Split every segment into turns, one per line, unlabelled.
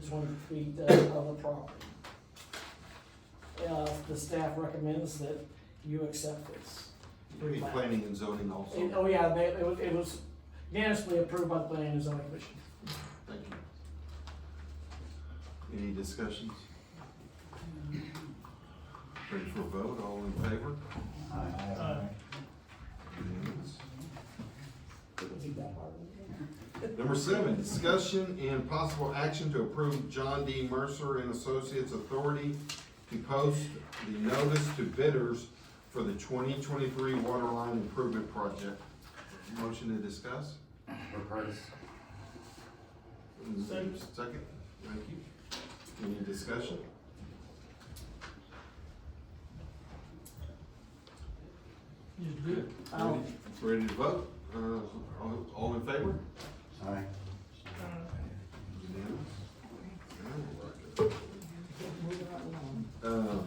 twenty feet uh, of the property. Uh, the staff recommends that you accept this.
We need planning and zoning
And,
also,
oh yeah, they, it was, it was unanimously approved by the planning and zoning commission.
thank you. Any discussions? Ready for a vote, all in favor?
Uh,
Unanimous.
Keep that part of
Number seven, discussion and possible action to approve John D. Mercer and Associates Authority to post the notice to bidders for the twenty twenty-three water line improvement project. Motion to discuss?
Or Curtis?
Second, thank you. Any discussion?
it. Um,
Ready to vote? Uh, all- all in favor?
Aye.
Um,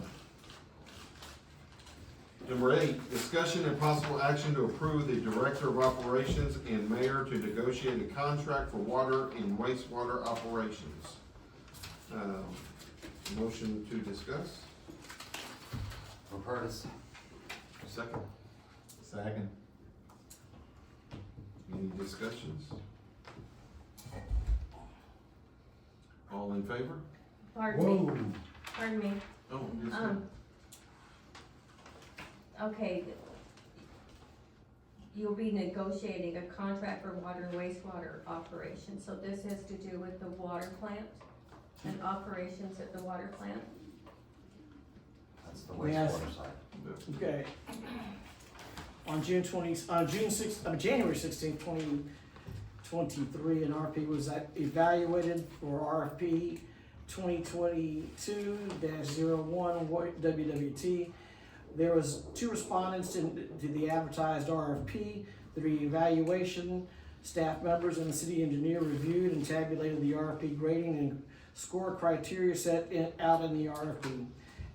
Number eight, discussion and possible action to approve the Director of Operations and Mayor to negotiate a contract for water and wastewater operations. Um, Motion to discuss,
Or Curtis?
second?
Second.
Any discussions? All in favor?
Pardon me, pardon me,
Oh, yes, ma'am.
um. Okay. You'll be negotiating a contract for water and wastewater operations, so this has to do with the water plant and operations at the water plant?
That's the
Yes.
wastewater side.
Okay. On June twenty, uh, June six, uh, January sixteenth, twenty twenty-three, an RP was ac- evaluated for RFP twenty twenty-two dash zero one WWT. There was two respondents to, to the advertised RFP. The reevaluation, staff members and the city engineer reviewed and tabulated the RFP grading and score criteria set in, out in the RFP.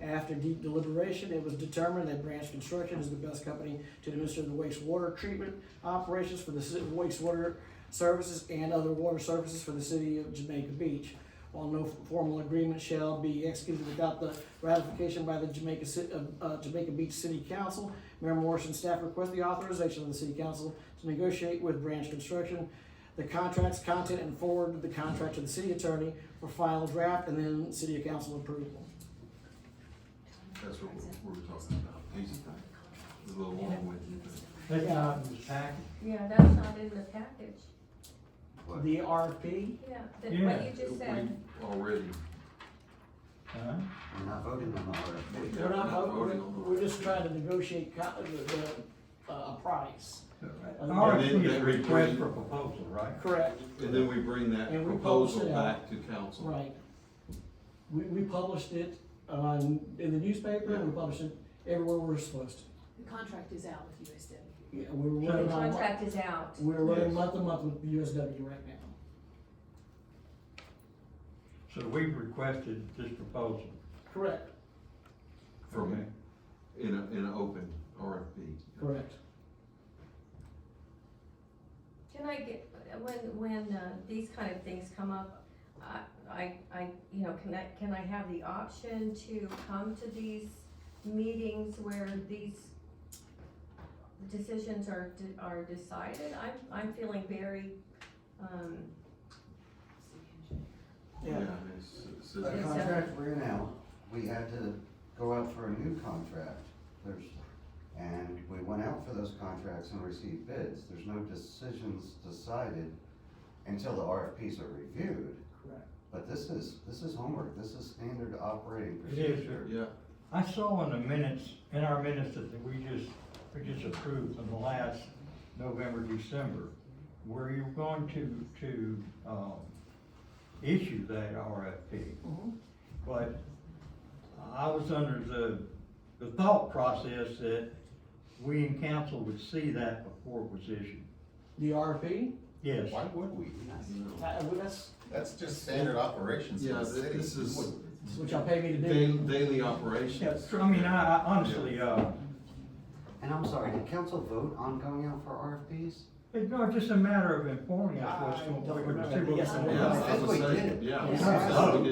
After deep deliberation, it was determined that Branch Construction is the best company to administer the wastewater treatment operations for the ci- wastewater services and other water services for the city of Jamaica Beach. While no formal agreement shall be executed without the ratification by the Jamaica Ci- uh, uh, Jamaica Beach City Council, Mayor Morris and staff request the authorization of the city council to negotiate with Branch Construction the contracts, content, and forward the contract to the city attorney for final draft and then city council approval.
That's what we're- we were talking about, easy thing, a little long-winded. but-
That's not in the packet.
Yeah, that's not in the package,
What?
The RFP,
yeah, that, what you
Yeah.
just said,
We Already.
Huh?
We're not voting on the RFP.
we're not,
Not voting
we're,
on the-
we're just trying to negotiate co- the, the, uh, price.
The RFP is a request for proposal, right?
Correct,
And then we bring that
And we publish
proposal
it out.
back to council.
right. We, we published it, um, in the newspaper, and we published it everywhere we're supposed to.
The contract is out with USW.
Yeah, we're
the
running on, mon-
contract is out.
we're running
Yes.
month to month with the USW right now.
So we've requested this proposal.
Correct,
Okay.
From, in a, in an open RFP.
correct.
Can I get, when, when, uh, these kind of things come up, I, I, I, you know, can I, can I have the option to come to these meetings where these decisions are, de- are decided? I'm, I'm feeling very, um,
Yeah,
it's- it's-
The
it's-
contract we're in now, we had to go out for a new contract There's And we went out for those contracts and received bids. There's no decisions decided until the RFPs are reviewed.
Correct.
But this is, this is homework. This is standard operating
It is,
procedure.
Yeah,
I saw in the minutes, in our minutes that we just, we just approved in the last November, December, where you're going to, to, um, issue that RFP.
Mhm.
But I was under the, the thought process that we in council would see that before it was issued.
the RFP,
Yes.
Why would we?
no.
uh, that's,
That's just standard operations
yeah,
for the
th-
city.
this
You
is
wouldn't.
that's what y'all pay me to do.
daily, daily operations.
Yes, I mean, I, I honestly, uh,
And I'm sorry, did council vote on going out for RFPs?
It's not just a matter of informing us what's
I
going
don't
on.
remember. Yes, I
Yeah, I
think
was
we
saying,
did it.
Yeah.
Yeah.
I was saying we did.